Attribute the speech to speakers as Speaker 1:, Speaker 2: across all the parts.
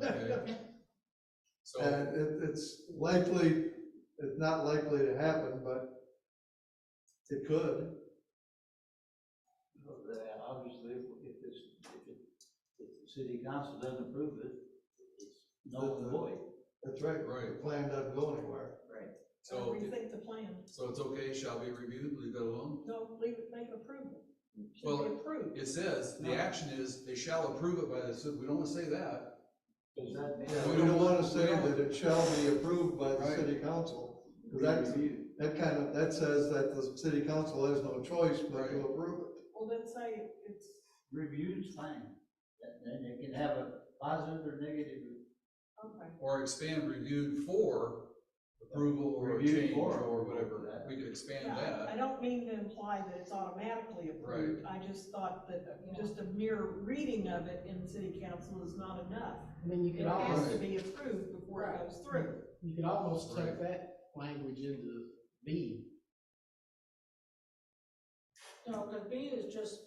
Speaker 1: Yeah.
Speaker 2: So,
Speaker 1: And it, it's likely, it's not likely to happen, but it could.
Speaker 3: Well, they- Obviously, if this, if it, if the city council doesn't approve it, it's null and void.
Speaker 1: That's right. The
Speaker 2: Right.
Speaker 1: plan doesn't go anywhere.
Speaker 3: Right.
Speaker 2: so,
Speaker 4: Rethink the plan.
Speaker 2: so it's okay, shall be reviewed, leave it alone?
Speaker 4: No, leave it, make it approval. Should
Speaker 2: Well,
Speaker 4: be approved.
Speaker 2: It says, the action is, they shall approve it by the, ci- we don't wanna say that.
Speaker 3: Does that mean?
Speaker 1: Yeah,
Speaker 2: we
Speaker 1: we
Speaker 2: don't-
Speaker 1: don't wanna
Speaker 2: we
Speaker 1: say
Speaker 2: don't-
Speaker 1: that it shall be approved by the
Speaker 2: Right.
Speaker 1: city council. 'Cause that, that kind of, that says that the city council has no choice but to
Speaker 2: Right.
Speaker 1: approve it.
Speaker 4: Well, then say it's,
Speaker 3: Review's fine, That- then it can have a positive or negative.
Speaker 4: okay,
Speaker 2: Or expand reviewed for approval or
Speaker 3: Reviewed
Speaker 2: change
Speaker 3: for
Speaker 2: or
Speaker 3: approval,
Speaker 2: whatever,
Speaker 3: that-
Speaker 2: we could expand
Speaker 4: yeah, I-
Speaker 2: that.
Speaker 4: I don't mean to imply that it's automatically approved. I just thought that just a mere reading of it in city council is not enough.
Speaker 5: I mean, you
Speaker 4: It
Speaker 5: could
Speaker 4: has to
Speaker 5: almost,
Speaker 4: be approved before it goes through.
Speaker 5: you could almost
Speaker 2: Right.
Speaker 5: take that language into B.
Speaker 6: No, because B is just,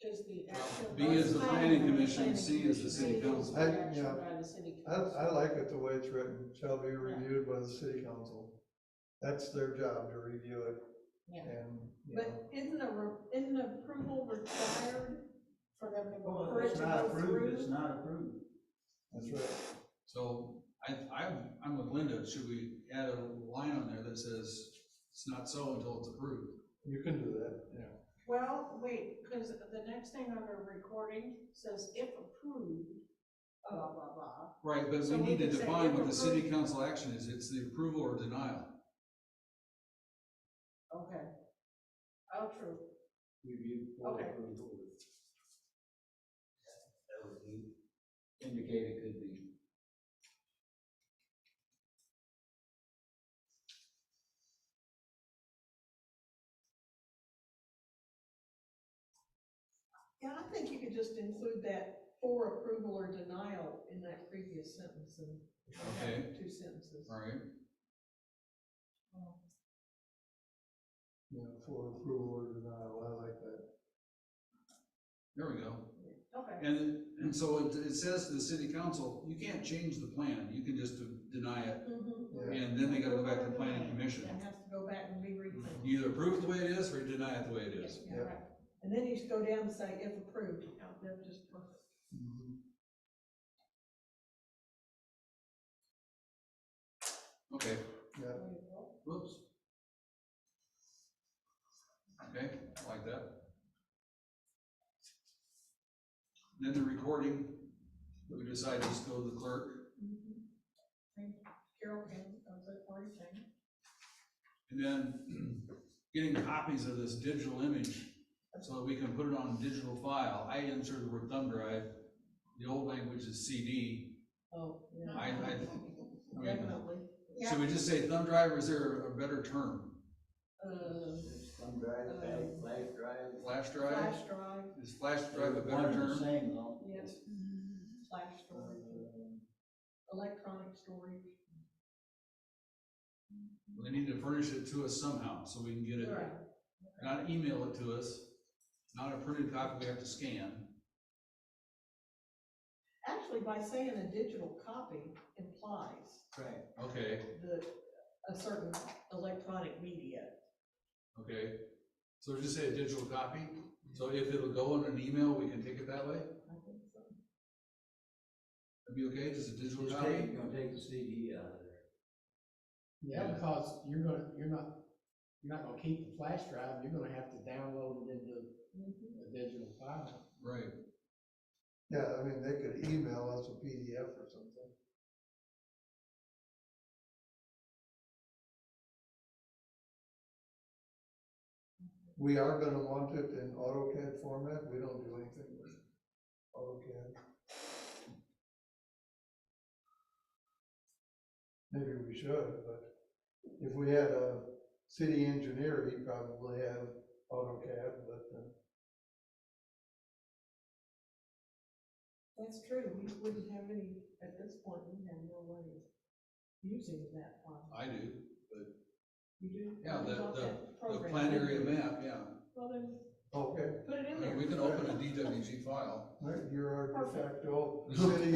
Speaker 6: is the action.
Speaker 2: B is the
Speaker 6: by
Speaker 2: planning
Speaker 6: the
Speaker 2: commission, C is the city
Speaker 6: planning commission,
Speaker 2: council.
Speaker 6: A is the
Speaker 1: I-
Speaker 6: action
Speaker 1: yeah.
Speaker 6: by the city
Speaker 1: I,
Speaker 6: council.
Speaker 1: I like it the way it's written, shall be reviewed by the city council. That's their job to review it.
Speaker 6: Yeah.
Speaker 1: And, you know,
Speaker 4: But isn't a, re- isn't approval required?
Speaker 6: For them to go.
Speaker 4: Well,
Speaker 6: through.
Speaker 4: it
Speaker 3: It's not
Speaker 4: to go
Speaker 3: approved, it's
Speaker 4: through?
Speaker 3: not approved.
Speaker 1: that's right.
Speaker 2: So, I, I'm, I'm with Linda, should we add a line on there that says, it's not so until it's approved?
Speaker 1: You can do that.
Speaker 6: Well, wait, because the next thing under recording says if approved, blah, blah, blah.
Speaker 2: Right, but we
Speaker 6: So we
Speaker 2: need to
Speaker 6: could say
Speaker 2: define
Speaker 6: if
Speaker 2: what the city
Speaker 6: approved.
Speaker 2: council action is, it's the approval or denial.
Speaker 6: Okay. Oh, true.
Speaker 3: Reviewed for
Speaker 6: Okay.
Speaker 3: approval. That would be indicated could be.
Speaker 4: Yeah, I think you could just include that for approval or denial in that previous sentence and
Speaker 2: Okay.
Speaker 4: two sentences.
Speaker 2: All right,
Speaker 1: Yeah, for approval or denial, I like that.
Speaker 2: there we go.
Speaker 6: Okay,
Speaker 2: And, and so it, it says to the city council, you can't change the plan, you can just deny it,
Speaker 4: Mhm.
Speaker 1: Yeah,
Speaker 2: and then they gotta go back to the planning commission.
Speaker 4: It has to go back and be rethought.
Speaker 2: You either approve it the way it is, or you deny it the way it is.
Speaker 6: yeah,
Speaker 1: Yeah.
Speaker 6: right.
Speaker 4: And then you should go down and say if approved, Yeah, that's just perfect.
Speaker 1: Mm-hmm.
Speaker 2: Okay,
Speaker 1: yeah.
Speaker 6: There you
Speaker 4: Mm-hmm.
Speaker 6: go.
Speaker 2: whoops. Okay, I like that. Then the recording, we decide just go to the clerk,
Speaker 4: Mhm. Thank you. uh, Carol can, I was at work, thank you.
Speaker 2: and then getting copies of this digital image, so that we can put it on a digital file. I inserted the word thumb drive, the old language is CD,
Speaker 4: Oh, yeah.
Speaker 2: I, I, I mean,
Speaker 4: Definitely.
Speaker 2: should we just say thumb drive, or is there a better term?
Speaker 4: Uh,
Speaker 3: Thumb drive, flash,
Speaker 5: Uh,
Speaker 3: flash drive.
Speaker 2: Flash drive?
Speaker 4: flash drive,
Speaker 2: Is flash drive a
Speaker 3: One
Speaker 2: better
Speaker 3: and the
Speaker 2: term?
Speaker 3: Same though.
Speaker 4: yes, Mm-hmm. flash
Speaker 3: Uh,
Speaker 4: storage, electronic storage.
Speaker 2: They need to furnish it to us somehow, so we can get it,
Speaker 4: Right.
Speaker 2: not email it to us, not a printed copy we have to scan.
Speaker 4: Actually, by saying a digital copy implies
Speaker 3: Right.
Speaker 2: Okay,
Speaker 4: the, a certain electronic media.
Speaker 2: okay. So just say a digital copy, so if it'll go in an email, we can take it that way?
Speaker 4: I think so.
Speaker 2: That'd be okay, just a digital
Speaker 3: Just
Speaker 2: copy?
Speaker 3: take, you're gonna take the CD out of there.
Speaker 5: Yeah,
Speaker 2: Yeah.
Speaker 5: because you're gonna, you're not, you're not gonna keep the flash drive, you're gonna have to download it into a digital file.
Speaker 2: Right,
Speaker 1: Yeah, I mean, they could email us a PDF or something. We are gonna want it in AutoCAD format, we don't do anything with AutoCAD. Maybe we should, but if we had a city engineer, he'd probably have AutoCAD, but uh,
Speaker 4: That's true, we wouldn't have any, at this point, we have no way of using that one.
Speaker 2: I do.
Speaker 4: You do?
Speaker 2: Yeah, the-
Speaker 4: Without
Speaker 2: the-
Speaker 4: that
Speaker 2: The
Speaker 4: program.
Speaker 2: plan area map, yeah.
Speaker 4: Well, then,
Speaker 1: okay,
Speaker 4: put it in
Speaker 2: I mean,
Speaker 4: there.
Speaker 2: We can open a DWG file.
Speaker 1: Right, you're our de
Speaker 4: Perfect.
Speaker 1: facto city